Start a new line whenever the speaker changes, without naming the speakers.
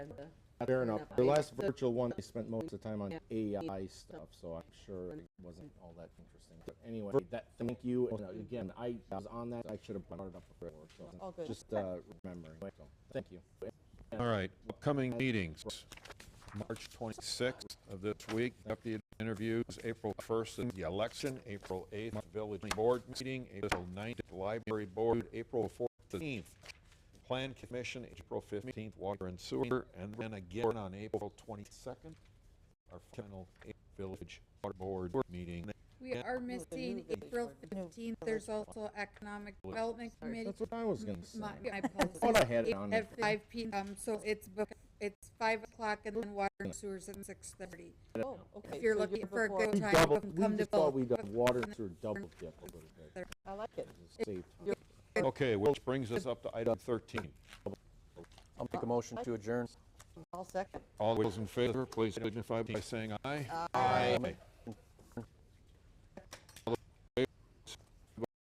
uh,
Fair enough.
enough.
The last
So-
virtual one, I spent most of the time on
Yeah.
AI stuff, so I'm sure it wasn't all that interesting. But anyway, that, thank you. And, uh, Again, I was on that, I should have brought it up before, so.
All good.
Just, uh, remembering, so, thank you.
All right, upcoming meetings, March 26th of this week, deputy interviews, April 1st is the election, April 8th, village board meeting, April 9th, library board, April 14th, plan commission, April 15th, water and sewer, and then again on April 22nd, our final village water board meeting.
We are missing April
No.
fifteenth. There's also Economic Development Committee.
That's what I was gonna say.
My, my
thought I
apologies.
had it
It-
on.
At five P M, so it's, bef- it's five o'clock and then water and sewers at six thirty.
Oh, okay.
If you're
so
looking for a good
We
time,
double-
come-
we
come to
just thought we'd
Bill.
uh, water through double dip a little bit,
I like it.
just save time.
Okay, which brings us up to item 13.
I'll make a motion to adjourn.
I'll second.
All those in favor, please signify by saying aye. Aye.